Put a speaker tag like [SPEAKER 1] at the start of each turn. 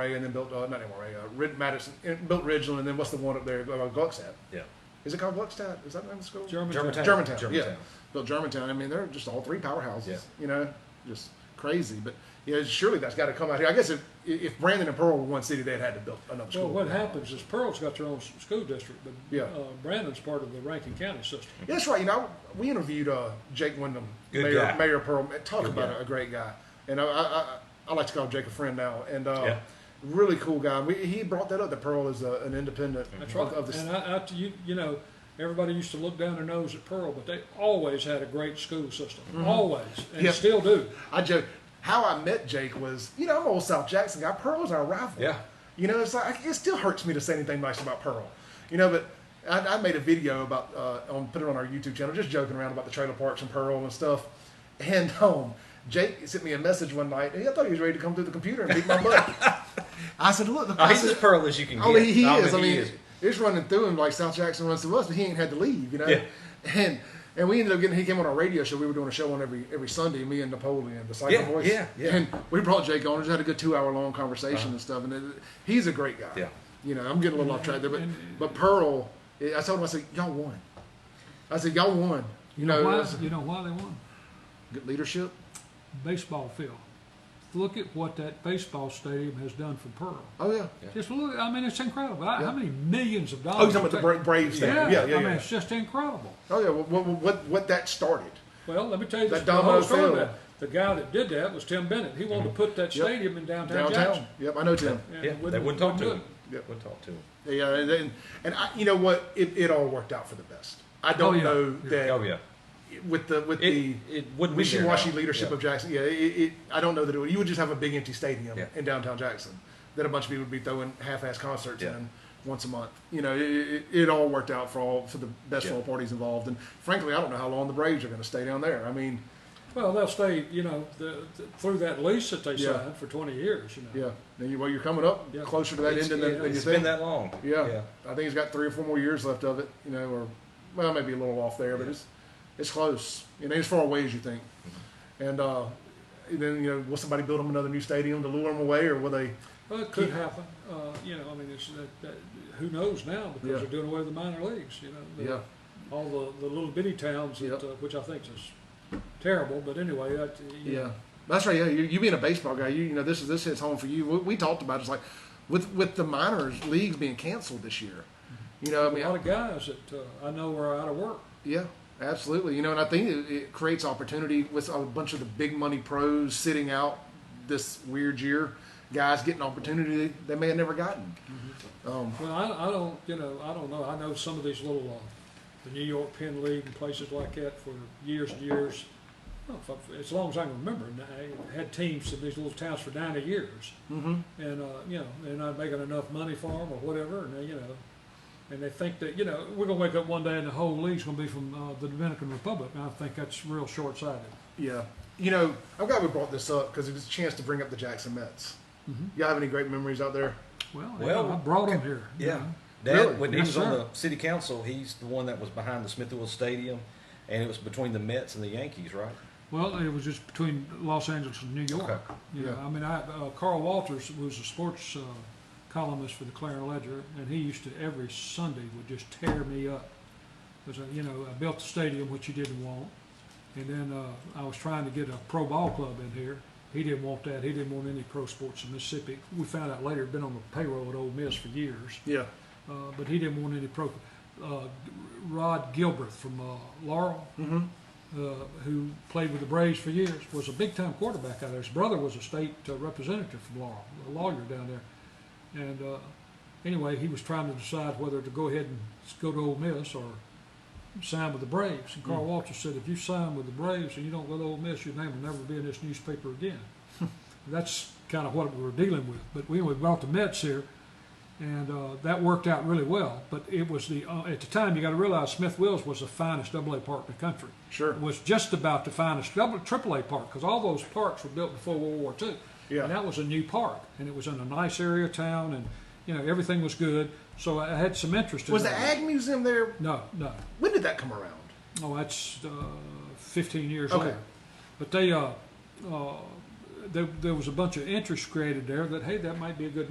[SPEAKER 1] Ray and then built, uh, not anymore, Ray, uh, Rid, Madison, and built Ridgeland, and then what's the one up there, uh, Gluckstadt?
[SPEAKER 2] Yeah.
[SPEAKER 1] Is it called Gluckstadt? Is that the name of the school?
[SPEAKER 2] Germantown.
[SPEAKER 1] Germantown, yeah.
[SPEAKER 2] Germantown.
[SPEAKER 1] Built Germantown, I mean, they're just all three powerhouses,
[SPEAKER 2] Yeah.
[SPEAKER 1] you know, just crazy, but, you know, surely that's gotta come out here. I guess if, if Brandon and Pearl were one city, they'd had to build another
[SPEAKER 3] Well,
[SPEAKER 1] school.
[SPEAKER 3] what happens is Pearl's got their own s- school district, but
[SPEAKER 1] Yeah.
[SPEAKER 3] uh, Brandon's part of the Rankin County system.
[SPEAKER 1] Yeah, that's right. You know, we interviewed uh, Jake Wyndham,
[SPEAKER 2] Good
[SPEAKER 1] Mayor,
[SPEAKER 2] guy.
[SPEAKER 1] Mayor of Pearl. Talk
[SPEAKER 2] Good
[SPEAKER 1] about
[SPEAKER 2] guy.
[SPEAKER 1] a great guy. And uh, I, I, I, I like to call Jake a friend now. And uh,
[SPEAKER 2] Yeah.
[SPEAKER 1] really cool guy. We, he brought that up that Pearl is a, an independent
[SPEAKER 3] That's
[SPEAKER 1] of,
[SPEAKER 3] right.
[SPEAKER 1] of the
[SPEAKER 2] uh,
[SPEAKER 3] and I, I, you, you know, everybody used to look down their nose at Pearl, but they always had a great school system.
[SPEAKER 1] Mm-hmm.
[SPEAKER 3] Always, and
[SPEAKER 1] Yep.
[SPEAKER 3] still do.
[SPEAKER 1] I joke. How I met Jake was, you know, I'm an old South Jackson guy. Pearl's our rival.
[SPEAKER 2] Yeah.
[SPEAKER 1] You know, it's like it still hurts me to say anything nice about Pearl. You know, but I, I made a video about uh, on put it on our YouTube channel, just joking around about the trailer parks and Pearl and stuff. And um, Jake sent me a message one night, and I thought he was ready to come through the computer and beat my butt. I said, "Look, the
[SPEAKER 2] Oh,
[SPEAKER 1] I
[SPEAKER 2] he's
[SPEAKER 1] said,
[SPEAKER 2] as pearl as you can get.
[SPEAKER 1] Oh, he, he
[SPEAKER 2] Oh,
[SPEAKER 1] is. I
[SPEAKER 2] he
[SPEAKER 1] mean,
[SPEAKER 2] is.
[SPEAKER 1] it's running through him like South Jackson runs through us, but he ain't had to leave, you know.
[SPEAKER 2] Yeah.
[SPEAKER 1] And and we ended up getting. He came on our radio show. We were doing a show on every every Sunday. Me and Napoleon, the Cyber
[SPEAKER 2] Yeah,
[SPEAKER 1] Voice.
[SPEAKER 2] yeah, yeah.
[SPEAKER 1] And we brought Jake on. Just had a good two hour long conversation and stuff. And it, he's a great guy.
[SPEAKER 2] Yeah.
[SPEAKER 1] You know, I'm getting a little off track there, but but Pearl, eh, I told him I said y'all won. I said y'all won. You know,
[SPEAKER 3] why?
[SPEAKER 1] that's
[SPEAKER 3] You know why they won?
[SPEAKER 1] good leadership.
[SPEAKER 3] Baseball field. Look at what that baseball stadium has done for Pearl.
[SPEAKER 1] Oh yeah.
[SPEAKER 3] Just look. I mean, it's incredible. How- How
[SPEAKER 1] Yeah.
[SPEAKER 3] many millions of dollars?
[SPEAKER 1] Oh, you're talking about the
[SPEAKER 3] they-
[SPEAKER 1] Bra- Braves thing. Yeah, yeah, yeah.
[SPEAKER 3] I mean, it's just incredible.
[SPEAKER 1] oh yeah. What, what- what what that started?
[SPEAKER 3] Well, let me tell you
[SPEAKER 1] That
[SPEAKER 3] this, the whole
[SPEAKER 1] domino
[SPEAKER 3] story
[SPEAKER 1] field.
[SPEAKER 3] about it. The guy that did that was Tim Bennett. He wanted to put that
[SPEAKER 1] Yep.
[SPEAKER 3] stadium in downtown, Jackson.
[SPEAKER 1] Downtown. Yep, I know Tim.
[SPEAKER 3] and
[SPEAKER 2] Yeah, they wouldn't talk to him.
[SPEAKER 1] do it.
[SPEAKER 2] Wouldn't talk to him.
[SPEAKER 1] Yeah, and then, uh, and I, you know what? It, it all worked out for the best. I don't
[SPEAKER 3] Oh, yeah.
[SPEAKER 1] know that
[SPEAKER 2] Oh yeah.
[SPEAKER 1] with the with
[SPEAKER 2] It-
[SPEAKER 1] the
[SPEAKER 2] it wouldn't be there
[SPEAKER 1] wishy-washy
[SPEAKER 2] now.
[SPEAKER 1] leadership
[SPEAKER 2] Yeah.
[SPEAKER 1] of Jackson. Yeah, it, it, I don't know that it would. You would just have a big empty stadium
[SPEAKER 2] Yeah.
[SPEAKER 1] in downtown Jackson that a bunch of people would be throwing half-ass concerts
[SPEAKER 2] Yeah.
[SPEAKER 1] in once a month. You know, it, it, it all worked out for all for the best
[SPEAKER 2] Yeah.
[SPEAKER 1] for all parties involved. And frankly, I don't know how long the Braves are going to stay down there. I mean,
[SPEAKER 3] Well, they'll stay, you know, the, the, through that lease that they
[SPEAKER 1] Yeah.
[SPEAKER 3] signed for 20 years. You know.
[SPEAKER 1] yeah, now you, well, you're coming up
[SPEAKER 3] Yeah.
[SPEAKER 1] closer to that
[SPEAKER 2] It's-
[SPEAKER 1] end than, than you
[SPEAKER 2] it's been
[SPEAKER 1] think.
[SPEAKER 2] that long.
[SPEAKER 1] Yeah. I think he's got three or four more years left of it, you know, or well, maybe a little off there, but it's it's close. You know, as far away as you think. And uh, then you know, will somebody build him another new stadium to lure him away, or will they?
[SPEAKER 3] Well, it could happen. Uh, you know, I mean, it's that, that, who knows now because
[SPEAKER 1] Yeah.
[SPEAKER 3] they're doing away with the minor leagues. You know, the,
[SPEAKER 1] Yeah,
[SPEAKER 3] all the, the little bitty towns, that,
[SPEAKER 1] Yep.
[SPEAKER 3] uh, which I think is terrible. But anyway, that, you
[SPEAKER 1] yeah,
[SPEAKER 3] know,
[SPEAKER 1] that's right. Yeah, you, you being a baseball guy, you you know, this is this hits home for you. We, we talked about it, it's like with with the minors leagues being canceled this year. You know, I mean,
[SPEAKER 3] a lot of guys that uh, I know are out of work.
[SPEAKER 1] Yeah, absolutely. You know, and I think it, it creates opportunity with a bunch of the big money pros sitting out this weird year. Guys getting opportunity they may have never gotten. Um,
[SPEAKER 3] Well, I, I don't, you know, I don't know. I know some of these little, uh, the New York Penn League and places like that for years and years. Well, if I- as long as I can remember, and I had teams in these little towns for 90 years,
[SPEAKER 1] mhm.
[SPEAKER 3] and uh, you know, they're not making enough money for them or whatever, and they, you know, and they think that you know we're gonna wake up one day and the whole league's gonna be from uh, the Dominican Republic, and I think that's real short-sighted.
[SPEAKER 1] Yeah. You know, I'm glad we brought this up because it was a chance to bring up the Jackson Mets.
[SPEAKER 3] Mhm.
[SPEAKER 1] Y'all have any great memories out there?
[SPEAKER 3] Well,
[SPEAKER 2] Mm-hmm. Well,
[SPEAKER 3] I brought them here. you
[SPEAKER 2] Yeah.
[SPEAKER 3] know.
[SPEAKER 2] Dad,
[SPEAKER 1] Really?
[SPEAKER 2] when he
[SPEAKER 3] Yes,
[SPEAKER 2] was on
[SPEAKER 3] sir.
[SPEAKER 2] the city council, he's the one that was behind the Smithfield Stadium, and it was between the Mets and the Yankees, right?
[SPEAKER 3] Well, it was just between Los Angeles and New York.
[SPEAKER 2] Okay.
[SPEAKER 3] You know,
[SPEAKER 1] Yeah.
[SPEAKER 3] I mean, I, uh, Carl Walters was a sports uh, columnist for the Clarion Ledger, and he used to every Sunday would just tear me up because you know I built the stadium, which he didn't want, and then uh, I was trying to get a pro ball club in here. He didn't want that. He didn't want any pro sports in Mississippi. We found out later, been on the payroll at Ole Miss for years
[SPEAKER 1] Yeah.
[SPEAKER 3] uh, but he didn't want any pro. Uh, Rod Gilbert from uh, Laurel,
[SPEAKER 1] Mhm.
[SPEAKER 3] uh, who played with the Braves for years, was a big time quarterback out there. His brother was a state uh, representative from Laurel, a lawyer down there. And uh, anyway, he was trying to decide whether to go ahead and go to Ole Miss or sign with the Braves. And Carl Walters said, if you sign with the Braves and you don't go to Ole Miss, your name will never be in this newspaper again. That's kind of what we were dealing with. But we, we brought the Mets here and uh, that worked out really well. But it was the uh, at the time you got to realize Smith Wills was the finest Double A park in the country.
[SPEAKER 1] Sure.
[SPEAKER 3] It was just about the finest double Triple A park because all those parks were built before World War II.
[SPEAKER 1] Yeah.
[SPEAKER 3] And that was a new park, and it was in a nice area of town, and you know everything was good. So I had some interest. in
[SPEAKER 1] Was the
[SPEAKER 3] that.
[SPEAKER 1] Ag Museum there?
[SPEAKER 3] No, no.
[SPEAKER 1] When did that come around?
[SPEAKER 3] Oh, that's uh, 15 years
[SPEAKER 1] Okay.
[SPEAKER 3] later. But they, uh, uh, there, there was a bunch of interest created there that hey, that might be a good